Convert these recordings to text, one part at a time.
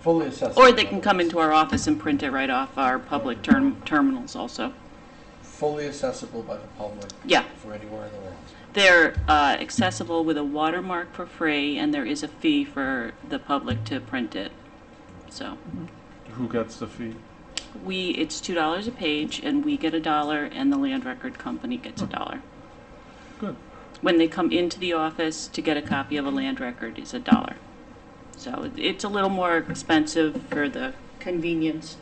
fully accessible. Or they can come into our office and print it right off our public term, terminals also. Fully accessible by the public Yeah, from anywhere in the world. they're uh, accessible with a watermark for free, and there is a fee for the public to print it. So Who gets the fee? we, it's two dollars a page, and we get a dollar, and the land record company gets a dollar. Good. When they come into the office to get a copy of a land record is a dollar. So it- it's a little more expensive for the convenience,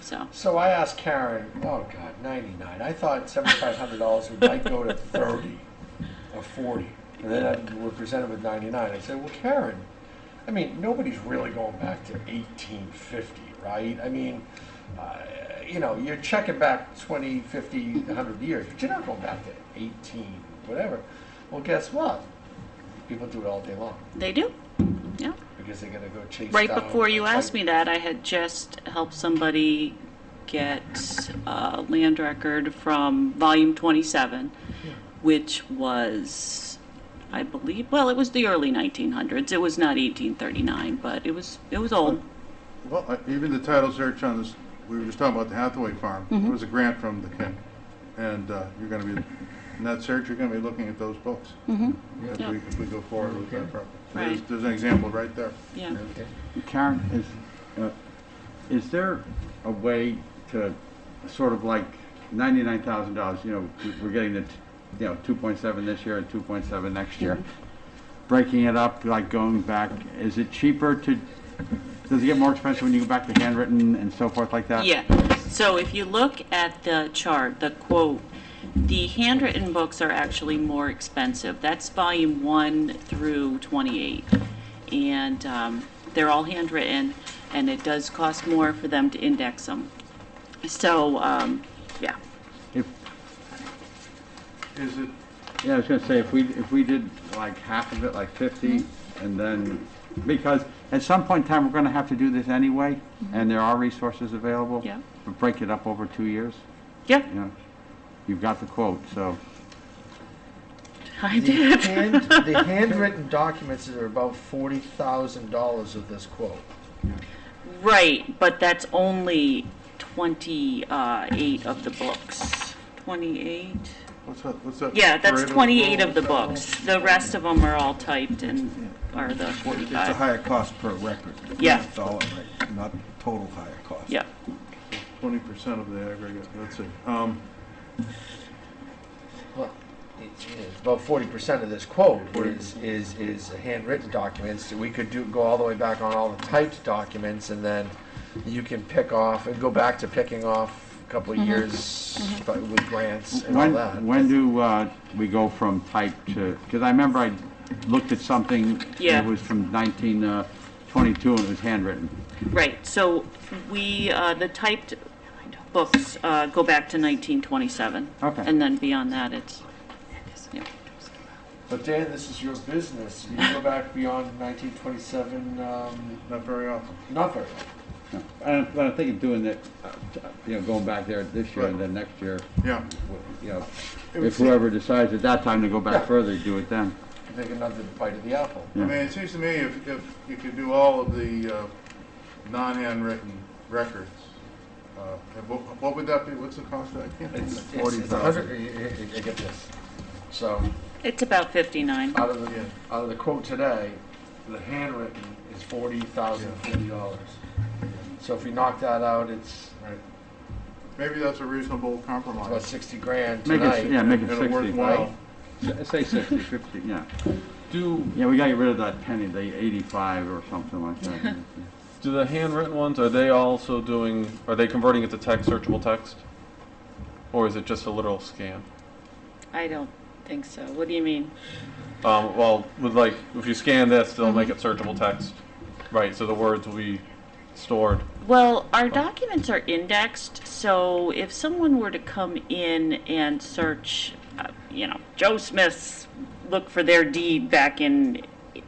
so. So I asked Karen, oh God, 99. I thought $7,500 would might go to 30 or 40. And then I, we're presented with 99. I said, well, Karen, I mean, nobody's really going back to 1850, right? I mean, uh, you know, you're checking back 20, 50, 100 years, but you're not going back to 18, whatever. Well, guess what? People do it all day long They do, yeah. because they're going to go chase Right down before a you type- asked me that, I had just helped somebody get a land record from volume 27, which was, I believe, well, it was the early 1900s. It was not 1839, but it was, it was old. Well, I- even the title search on this, we were just talking about the Hathaway Farm. Mm-hmm. It was a grant from the county. And uh, you're going to be, in that search, you're going to be looking at those books. If we, if we go forward with that property. So There's, Right. there's an example right there. Yeah. Okay. Karen, is, uh, is there a way to sort of like ninety-nine thousand dollars, you know, we- we're getting the, t- you know, two point seven this year and two point seven next year. Breaking it up, like going back, is it cheaper to, does it get more expensive when you go back to handwritten and so forth like that? Yeah, so if you look at the chart, the quote, the handwritten books are actually more expensive. That's volume one through 28. And um, they're all handwritten, and it does cost more for them to index them. So, um, yeah, If, Is it, yeah, I was gonna say, if we, if we did like half of it, like fifty, Mm-hmm. and then, because at some point in time, we're gonna have to do this anyway, and there are resources available. Mm-hmm. Yeah. But break it up over two years, yeah, you know, you've got the quote, so, I The did. hand, the handwritten documents are about forty thousand dollars of this quote. Right, but that's only 28 of the books. 28? What's that, what's that? Yeah, parade that's of 28 of rules? the books. The rest of them are all typed and are the It's a 45. higher cost per record. Yeah. Not Dollar rate, not total higher cost. Yeah, twenty percent of the aggregate, let's see. Uh, Um, Well, it's, it's about forty percent of this quote is, is, is handwritten documents. We could do, go all the way back on all the typed documents and then you can pick off, and go back to picking off a couple of years but with grants and all when, that. when do, uh, we go from type to, because I remember I looked at something, Yeah. it was from nineteen, uh, twenty-two, and it was handwritten. right. So we, uh, the typed books uh, go back to 1927. Okay. And then beyond that, it's, yeah. But Dan, this is your business. You go back beyond 1927, um, Not very often. not very long. No, I don't, I don't think of doing that, uh, you know, going back there this year and then next year, Yeah. you know, would if seem- whoever decides at that time to go back further, do it then. Take another bite of the apple. I mean, it seems to me if, if you could do all of the uh, non-handwritten records, uh, and what, what would that be, what's the cost of that? I can't think It's, of it's, that. it's a 40,000. hundred, you, you- you get this. So, It's about 59. Uh, out of the, Yeah. out of the quote today, the handwritten is forty thousand forty dollars. So if we knock that out, it's Right. Maybe that's a reasonable about compromise. sixty grand Make it, tonight. yeah, make it And a worthwhile, sixty. S- Say sixty, fifty, yeah. do, Yeah, we gotta get rid of that penny, the eighty-five or something like that. do the handwritten ones, are they also doing, are they converting it to text, searchable text? Or is it just a literal scan? I don't think so. What do you mean? Um, well, with like, if you scan this, they'll make it searchable text. Right, so the words will be stored. Well, our documents are indexed, so if someone were to come in and search, uh, you know, Joe Smith's, look for their deed back in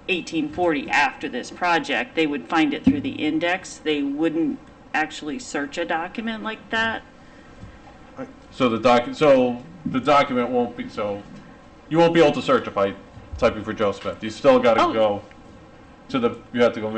1840 after this project, they would find it through the index. They wouldn't actually search a document like that. So the doc, so the document won't be, so you won't be able to search if I type in for Joe Smith. You still gotta Oh. go to the, you have to go